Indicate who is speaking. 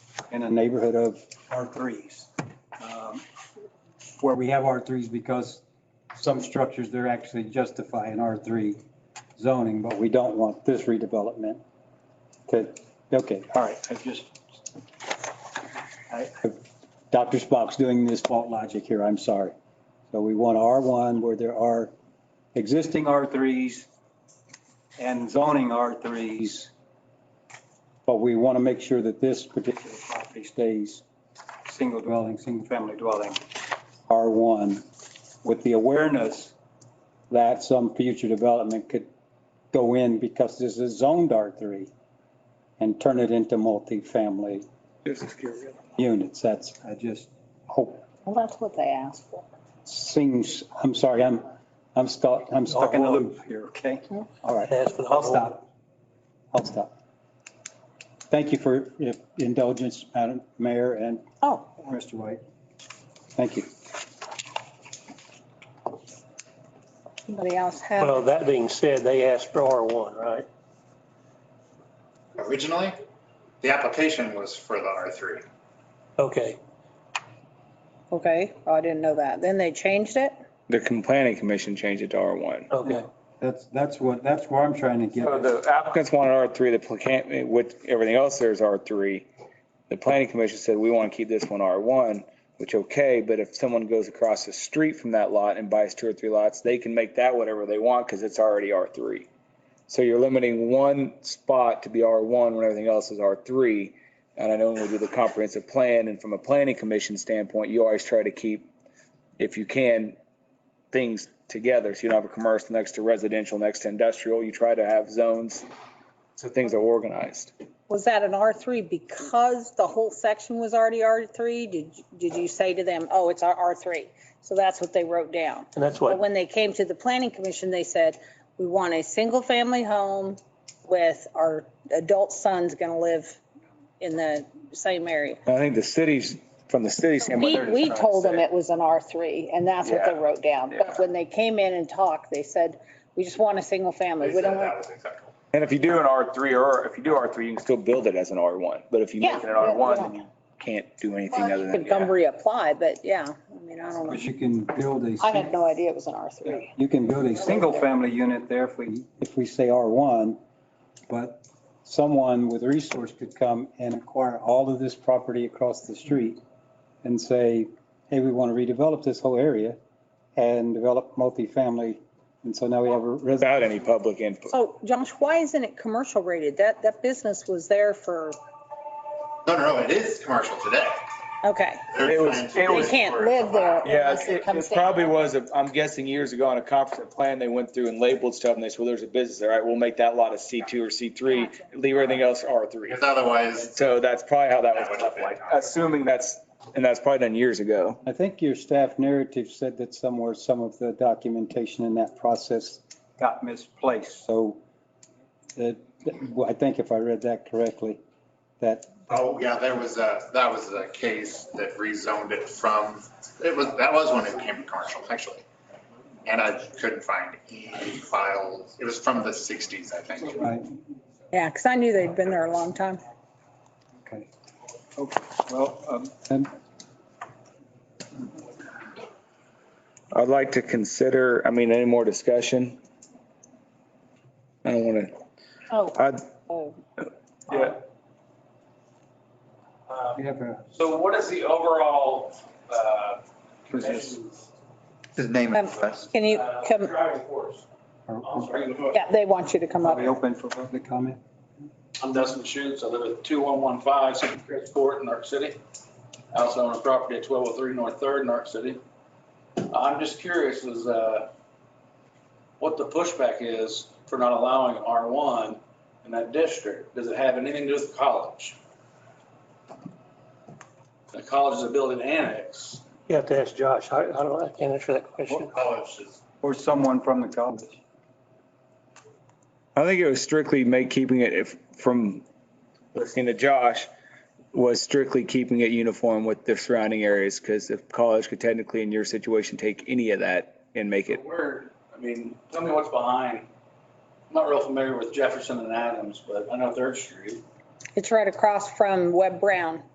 Speaker 1: in the neighborhood of R3s. um, Where we have R3s because some structures, they're actually justifying R3 zoning, but we don't want this redevelopment. Okay, okay, all right, I just. I- I- Dr. Spock's doing this fault logic here, I'm sorry. So we want R1 where there are existing R3s and zoning R3s. But we want to make sure that this particular property stays single dwelling, single family dwelling, R1, with the awareness that some future development could go in because this is zoned R3 and turn it into multifamily
Speaker 2: This is Gary.
Speaker 1: units. That's, I just hope,
Speaker 3: Well, that's what they asked for.
Speaker 1: seems, I'm sorry, I'm, I'm stuck, I'm stuck in the loop here, okay? All right.
Speaker 4: Ask for the
Speaker 3: Oh.
Speaker 1: I'll
Speaker 4: whole-
Speaker 1: stop. I'll stop. Thank you for your indulgence, Madam Mayor and
Speaker 3: Oh,
Speaker 1: Mr. White. Thank you.
Speaker 3: somebody else have,
Speaker 4: Well, that being said, they asked for R1, right?
Speaker 5: originally, the application was for the R3.
Speaker 4: Okay,
Speaker 3: okay, oh, I didn't know that. Then they changed it?
Speaker 6: The com- planning commission changed it to R1.
Speaker 4: okay.
Speaker 1: That's, that's what, that's where I'm trying to get.
Speaker 6: So the applicants wanted R3, the plant, with everything else there is R3. The planning commission said, we want to keep this one R1, which okay, but if someone goes across the street from that lot and buys two or three lots, they can make that whatever they want because it's already R3. So you're limiting one spot to be R1 when everything else is R3. And I know when we do the comprehensive plan and from a planning commission standpoint, you always try to keep, if you can, things together. So you don't have a commercial next to residential, next to industrial. You try to have zones so things are organized.
Speaker 3: Was that an R3 because the whole section was already R3? Did, did you say to them, oh, it's our R3? So that's what they wrote down.
Speaker 4: And that's
Speaker 3: But
Speaker 4: what,
Speaker 3: when they came to the planning commission, they said, we want a single family home with our adult son's gonna live in the same area.
Speaker 6: I think the cities, from the city standpoint.
Speaker 3: We,
Speaker 6: they're just
Speaker 3: we
Speaker 6: trying to
Speaker 3: told them
Speaker 6: say-
Speaker 3: it was an R3 and that's what they
Speaker 6: Yeah.
Speaker 3: wrote down.
Speaker 6: Yeah.
Speaker 3: But when they came in and talked, they said, we just want a single family.
Speaker 5: They
Speaker 3: We
Speaker 5: said
Speaker 3: don't
Speaker 5: that
Speaker 3: want,
Speaker 5: was acceptable.
Speaker 6: And if you do an R3 or if you do R3, you can still build it as an R1. But if you
Speaker 3: Yeah,
Speaker 6: make it an
Speaker 3: yeah,
Speaker 6: R1,
Speaker 3: yeah.
Speaker 6: then you can't do anything
Speaker 3: well,
Speaker 6: other
Speaker 3: you
Speaker 6: than.
Speaker 3: could
Speaker 6: yeah.
Speaker 3: come reapply, but yeah, I mean, I don't
Speaker 1: But
Speaker 3: know.
Speaker 1: you can build a.
Speaker 3: I had no idea it was an R3.
Speaker 1: You can build a single family unit there if we, if we say R1, but someone with resource could come and acquire all of this property across the street and say, hey, we want to redevelop this whole area and develop multifamily. And so now we have a residential.
Speaker 6: Without any public input.
Speaker 3: So Josh, why isn't it commercial rated? That, that business was there for,
Speaker 5: No, no, no, it is commercial today.
Speaker 3: okay.
Speaker 5: They're
Speaker 6: It was-
Speaker 5: trying to-
Speaker 6: it
Speaker 3: They
Speaker 6: was-
Speaker 3: can't live there.
Speaker 6: Yeah,
Speaker 3: unless
Speaker 6: it
Speaker 3: comes
Speaker 6: it
Speaker 3: down.
Speaker 6: probably was, a- I'm guessing years ago on a conference plan, they went through and labeled stuff and they said, well, there's a business there. All right, we'll make that lot a C2 or C3, leave everything else R3.
Speaker 5: Because otherwise,
Speaker 6: So that's probably how that was
Speaker 5: That would
Speaker 6: cut,
Speaker 5: have been
Speaker 6: like,
Speaker 5: awkward.
Speaker 6: assuming that's, and that's probably done years ago.
Speaker 1: I think your staff narrative said that somewhere some of the documentation in that process got misplaced. So uh, well, I think if I read that correctly, that
Speaker 5: oh, yeah, there was a, that was a case that rezoned it from, it was, that was when it became commercial, actually. And I couldn't find any files. It was from the 60s, I think.
Speaker 1: I
Speaker 3: Yeah, because I knew they'd been there a long time.
Speaker 1: okay.
Speaker 2: Well, um,
Speaker 1: And
Speaker 6: I'd like to consider, I mean, any more discussion? I don't want
Speaker 3: Oh,
Speaker 6: to, I'd,
Speaker 3: oh.
Speaker 7: Yeah.
Speaker 1: we
Speaker 7: Um,
Speaker 1: have a-
Speaker 7: So what is the overall, uh,
Speaker 1: Who's this?
Speaker 7: commission's,
Speaker 8: His name
Speaker 3: Um,
Speaker 8: is Wes.
Speaker 3: Can you
Speaker 7: uh,
Speaker 3: come,
Speaker 7: driving force? Oh, I'm
Speaker 1: are
Speaker 7: sorry.
Speaker 3: yeah, they want you to come up.
Speaker 1: we open for public comment?
Speaker 7: I'm Dustin Schutz. I live at 2115 St. Chris Court in Arc City. I also own a property at 1203 North Third in Arc City. Uh, I'm just curious is, uh, what the pushback is for not allowing R1 in that district. Does it have anything to do with the college? The college's ability to annex.
Speaker 4: you have to ask Josh. I, I don't, I can't answer that question.
Speaker 5: College is
Speaker 1: Or someone from the college?
Speaker 6: I think it was strictly make, keeping it if, from listening to Josh, was strictly keeping it uniform with the surrounding areas, because if college could technically in your situation, take any of that and make it.
Speaker 7: Where, I mean, tell me what's behind. I'm not real familiar with Jefferson and Adams, but I know Third Street.
Speaker 3: It's right across from Webb Brown.